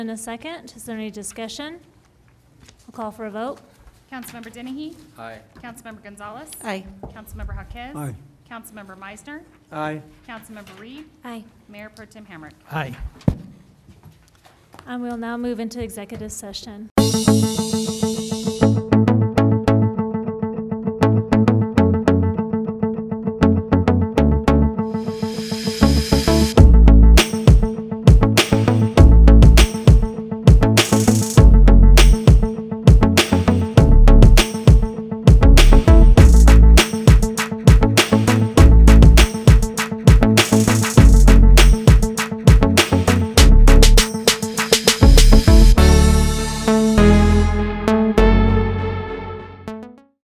And a second, is there any discussion? We'll call for a vote. Councilmember Dennehy? Aye. Councilmember Gonzalez? Aye. Councilmember Haquez? Aye. Councilmember Meisner? Aye. Councilmember Reed? Aye. Mayor Pro Tem Hamrick? Aye. And we'll now move into executive session.